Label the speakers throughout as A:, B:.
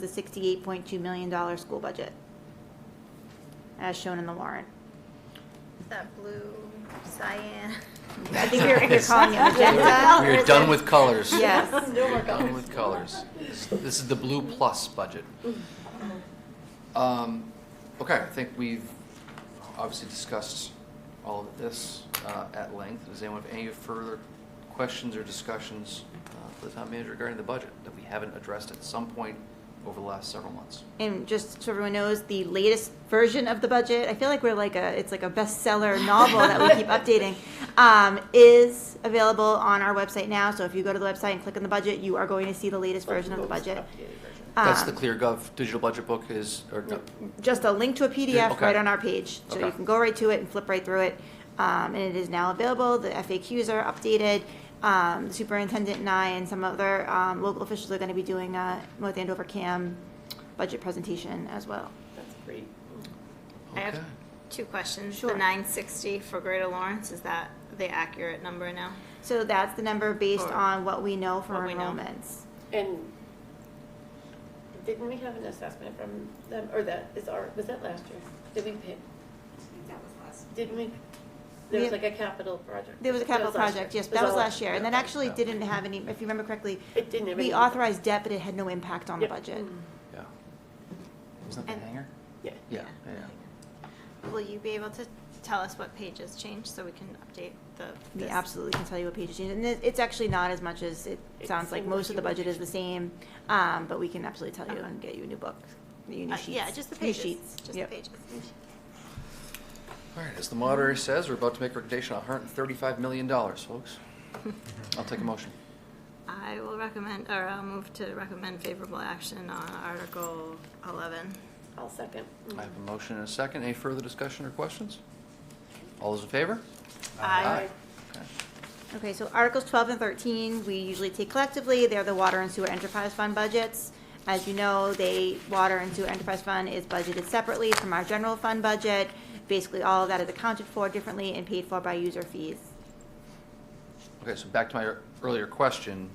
A: the $68.2 million school budget, as shown in the warrant.
B: That blue, cyan.
A: I think you're, you're calling it magenta.
C: We are done with colors.
A: Yes.
C: Done with colors. This is the blue plus budget. Um, Okay, I think we've obviously discussed all of this uh, at length. Does anyone have any further questions or discussions uh, for the town manager regarding the budget that we haven't addressed at some point over the last several months?
A: And just so everyone knows, the latest version of the budget, I feel like we're like a, it's like a bestseller novel that we keep updating, um, is available on our website now. So if you go to the website and click on the budget, you are going to see the latest version of the budget.
C: That's the
A: Um,
C: ClearGov digital budget book is, or no,
A: just a link to a
C: Yeah,
A: PDF
C: okay.
A: right on our page. So you
C: Okay.
A: can go right to it and flip right through it. Um, and it is now available. The FAQs are updated. Um, the superintendent and I and some other, um, local officials are gonna be doing a North Andover CAM budget presentation as well.
D: That's great.
B: I have
C: Okay.
B: two questions.
A: Sure.
B: The nine sixty for Greater Lawrence, is that the accurate number now?
A: So that's the number based
B: Or
A: on what we know from
B: what we know.
A: enrollments.
D: And didn't we have an assessment from them, or that is our, was that last year? Did we pay? Didn't we? There
A: We-
D: was like a capital project.
A: There was a capital
D: last
A: project,
D: year.
A: yes, that was
D: all
A: last year. And that
D: Okay.
A: actually
C: Yeah.
A: didn't have any, if you remember correctly,
D: It didn't have any.
A: we authorized debt, but it had no impact on the
D: Yep.
A: budget.
B: Mm.
C: yeah. Isn't that the
B: And-
C: hanger?
D: Mm. Yeah.
C: Yeah, yeah.
B: Will you be able to tell us what pages changed so we can update the?
A: We
B: this?
A: absolutely can tell you what page it's in, and it- it's actually not as much as it
D: It's
A: sounds like.
D: similar
A: Most of
D: to
A: the
D: what
A: budget
D: you-
A: is the same, um, but we can absolutely tell you
B: Okay.
A: and get you a new book, you new
B: Uh-huh. Uh,
A: sheets.
B: Yeah, just the
A: new
B: pages,
A: sheets.
B: just the
A: Yep.
B: pages.
C: All right, as the moderator says, we're about to make a recommendation on $135 million, folks. I'll take a motion.
B: I will recommend, or I'll move to recommend favorable action on Article eleven.
D: I'll second.
C: I have a motion and a second. Any further discussion or questions? All those in favor?
B: Aye.
C: Okay.
A: Okay, so Articles 12 and 13, we usually take collectively. They're the Water and Sewer Enterprise Fund budgets. As you know, the Water and Sewer Enterprise Fund is budgeted separately from our general fund budget. Basically, all of that is accounted for differently and paid for by user fees.
C: Okay, so back to my earlier question,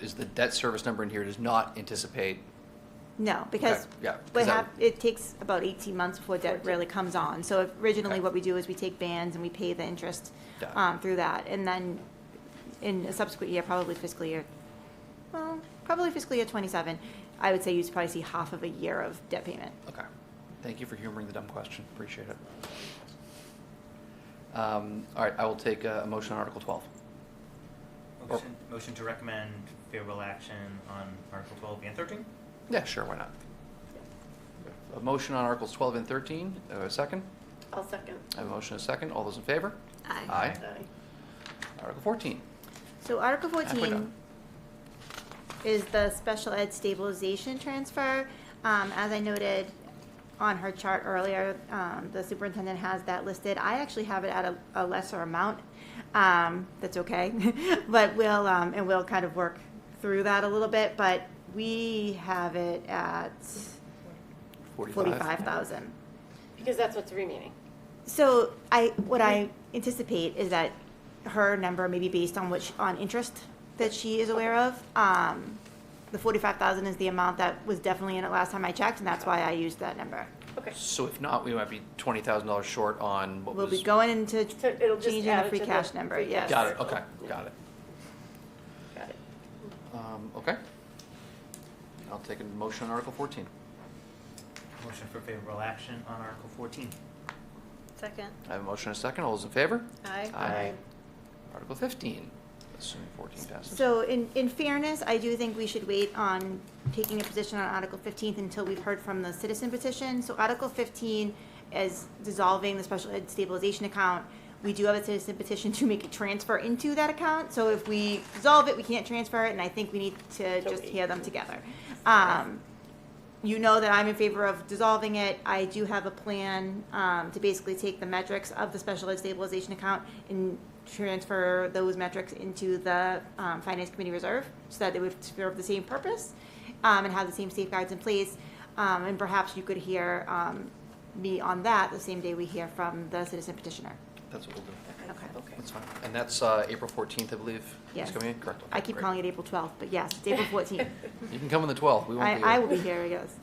C: is the debt service number in here does not anticipate,
A: No, because
C: Okay, yeah,
A: we
C: 'cause that-
A: have, it takes about 18 months before debt
D: Fourteen.
A: really comes on. So if- originally,
C: Okay.
A: what we do is we take bands and we pay the interest
C: Got it.
A: um, through that. And then in a subsequent year, probably fiscal year, well, probably fiscal year '27, I would say you'd probably see half of a year of debt payment.
C: okay. Thank you for humoring the dumb question. Appreciate it. Um, All right, I will take a a motion on Article 12. Or-
E: Motion, motion to recommend favorable action on Article twelve and thirteen?
C: Yeah, sure, why not? A motion on Articles 12 and 13, Uh, a second?
D: I'll second.
C: I have a motion and a second. All those in favor?
B: Aye.
C: Aye.
D: Aye.
C: Article 14.
A: So Article
C: we're
A: fourteen
C: done.
A: is the special ed stabilization transfer. Um, as I noted on her chart earlier, um, the superintendent has that listed. I actually have it at a, a lesser amount. Um, that's okay, but we'll, um, and we'll kind of work through that a little bit, but we have it at forty-five thousand.
D: Because that's what's remaining.
A: So I, what I anticipate is that her number may be based on which, on interest that she is aware of. Um, the forty-five thousand is the amount that was definitely in it last time I checked, and that's why I used that number.
D: Okay.
C: So if not, we might be twenty thousand dollars short on what
A: We'll
C: was.
A: be going into
D: So it'll just
A: changing the
D: add it
A: free
D: to the
A: cash number,
D: free
A: yes.
D: cash.
C: Got it, okay, got it.
D: Got it.
C: Um, okay. I'll take a motion on Article fourteen.
E: Motion for favorable action on Article fourteen.
B: Second.
C: I have a motion and a second. All those in favor?
B: Aye.
D: Aye.
C: Article fifteen, assuming fourteen passes.
A: So in, in fairness, I do think we should wait on taking a position on Article 15 until we've heard from the citizen petition. So Article 15 is dissolving the special ed stabilization account. We do have a citizen petition to make a transfer into that account. So if we dissolve it, we can't transfer it, and I think we need to
D: So
A: just
D: we-
A: hear them together. Um, you know that I'm in favor of dissolving it. I do have a plan um, to basically take the metrics of the special ed stabilization account and transfer those metrics into the um, finance committee reserve so that they would serve the same purpose um, and have the same safeguards in place. Um, and perhaps you could hear um, me on that the same day we hear from the citizen petitioner.
C: That's what we'll do.
A: Okay.
D: Okay.
C: That's fine. And that's uh, April 14th, I believe. is
A: Yes.
C: coming in? Correct.
A: I keep calling it April 12th, but yes, it's April 14th.
C: You can come on the 12th. We won't be
A: I,
C: here.
A: I will be here, I guess.